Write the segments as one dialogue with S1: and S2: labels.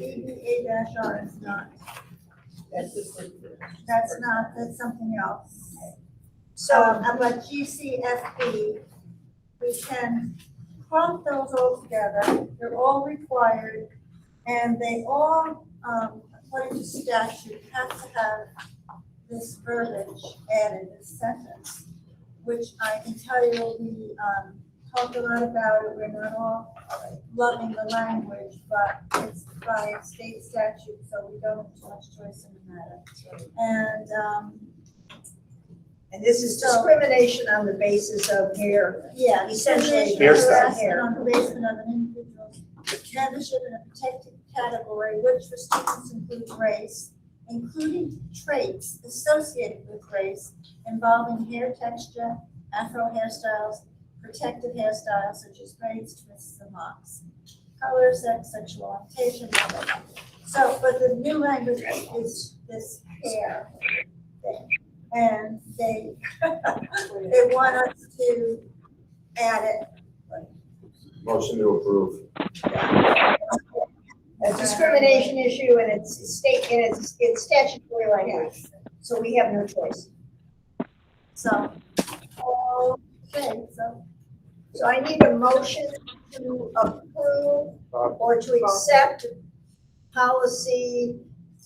S1: A dash R is not,
S2: That's the separate.
S1: that's not, that's something else. So,
S3: So,
S1: uh, but GCFB, we can clump those all together, they're all required, and they all, um, according to statute, have to have this verbiage added, this sentence, which I can tell you, we, um, talked a lot about it, we're not all loving the language, but it's by state statute, so we don't have too much choice in the matter. And, um,
S3: and this is
S1: So-
S3: discrimination on the basis of hair.
S1: Yeah.
S3: Essentially,
S4: Hair style.
S1: harassment On the basis of an individual's membership in a protected category, which for students includes race, including traits associated with race involving hair texture, afro hairstyles, protected hairstyles such as braids, twists, and locks, color, sex, sexual orientation, blah, blah, blah. So, but the new language is this hair thing. And they, they want us to add it.
S5: Motion to approve.
S3: A discrimination issue and it's state, and it's, it's statutory language, so we have no choice.
S1: So, okay, so
S3: So I need a motion to approve or to accept policy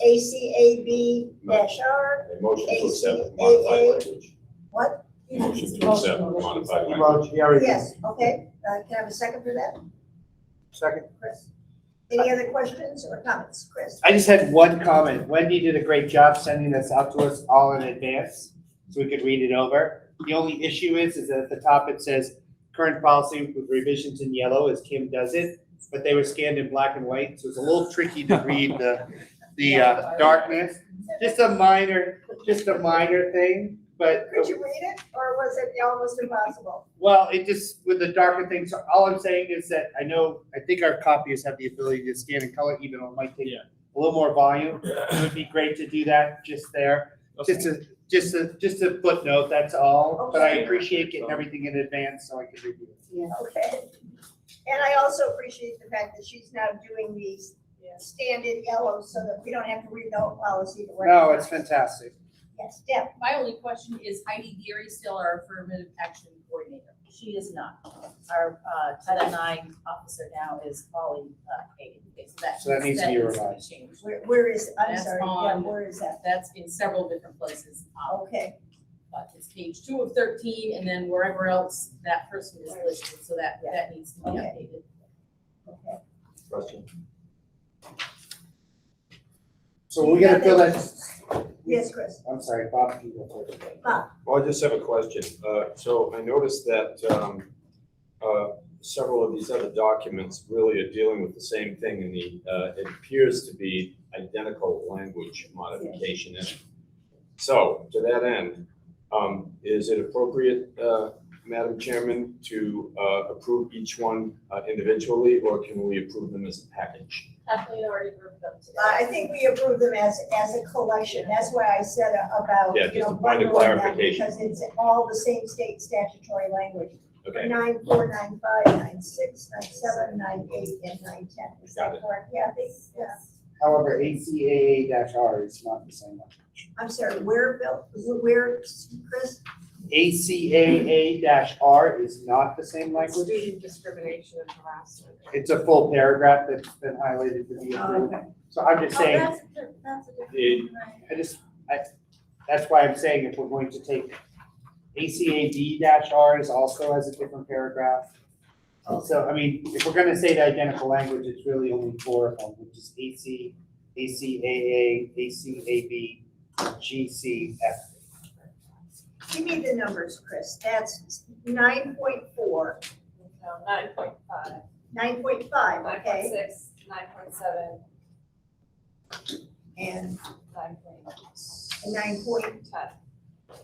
S3: ACAB dash R.
S5: A motion to accept the modified language.
S3: What?
S5: Motion to accept the modified language.
S6: Well, Jerry,
S3: Yes, okay, uh, can I have a second for that,
S6: second.
S3: Chris? Any other questions or comments, Chris?
S6: I just had one comment. Wendy did a great job sending this out to us all in advance, so we could read it over. The only issue is, is that at the top it says, current policy with revisions in yellow as Kim does it, but they were scanned in black and white, so it's a little tricky to read the, the uh, darkness. Just uh, a minor, just a minor thing, but
S3: Could you read it, or was it almost impossible?
S6: Well, it just, with the darker things, all I'm saying is that I know, I think our copiers have the ability to scan and color, even though it might take a little more volume. It would be great to do that just there, just a, just a, just a footnote, that's all. But I
S3: Okay.
S6: appreciate getting everything in advance so I can review it.
S3: Okay. And I also appreciate the fact that she's now doing these standard yellow, so that we don't have to read the whole policy to work.
S6: No, it's fantastic.
S3: Yes, Deb,
S2: My only question is Heidi Geary still our affirmative action coordinator?
S7: She is not. Our uh, Title IX officer now is Polly uh, Hayden. Okay,
S6: So that needs to be revised.
S7: changed.
S3: where, where is, I'm
S7: That's
S3: sorry, yeah,
S7: on-
S3: where is that?
S7: That's in several different places. Um,
S3: Okay,
S7: But it's page two of thirteen, and then wherever else that person is listed, so that, that needs to be
S3: Okay.
S7: updated.
S3: okay.
S5: Question.
S6: So we're gonna fill that,
S3: Yes, Chris,
S6: I'm sorry, Bob, you go first.
S5: Well, I just have a question. Uh, so I noticed that, um, uh, several of these other documents really are dealing with the same thing and the, uh, it appears to be identical language modification in it. So to that end, um, is it appropriate, uh, Madam Chairman, to, uh, approve each one uh, individually or can we approve them as a package?
S7: Kathleen already grouped them today.
S3: Uh, I think we approve them as, as a collection, that's why I said about,
S5: Yeah,
S3: you
S5: just
S3: know,
S5: a point of
S3: bundling them,
S5: clarification.
S3: because it's all the same state statutory language.
S5: Okay,
S3: Nine, four, nine, five, nine, six, nine, seven, nine, eight, and nine, ten, is
S5: Got
S3: that
S5: it.
S3: correct? Yeah, I think, yeah.
S6: However, ACAA dash R is not the same one.
S3: I'm sorry, where, Bill, where, Chris?
S6: ACAA dash R is not the same language.
S2: Student discrimination and harassment.
S6: It's a full paragraph that's been highlighted to be approved. So I'm just
S1: Oh,
S6: saying,
S1: that's, a diff- that's a
S5: It-
S1: different, right.
S6: I just, I, that's why I'm saying if we're going to take ACAB dash R is also has a different paragraph. And So, I mean, if we're gonna say the identical language, it's really only four of them, which is AC, ACAA, ACAB, GCF.
S3: Give me the numbers, Chris, that's nine point four,
S2: No, nine point five,
S3: nine point five,
S2: nine point
S3: okay?
S2: six, nine point seven,
S3: And
S2: nine point
S3: nine point
S2: ten.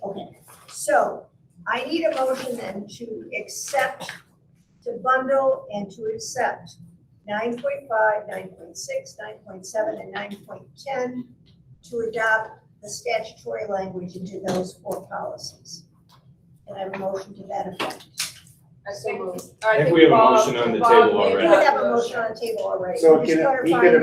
S3: Okay, so I need a motion then to accept, to bundle and to accept nine point five, nine point six, nine point seven, and nine point ten to adopt the statutory language into those four policies. And I have a motion to that effect.
S2: I
S3: So
S2: think,
S3: moved.
S2: I
S5: I think
S2: think
S5: we have a
S2: Bob-
S5: motion on the
S2: Bob
S5: table
S2: made
S3: We
S5: already.
S2: that
S3: have a motion on the table already.
S6: So
S3: I'm
S6: it
S3: just
S6: can- we
S3: clarifying
S6: could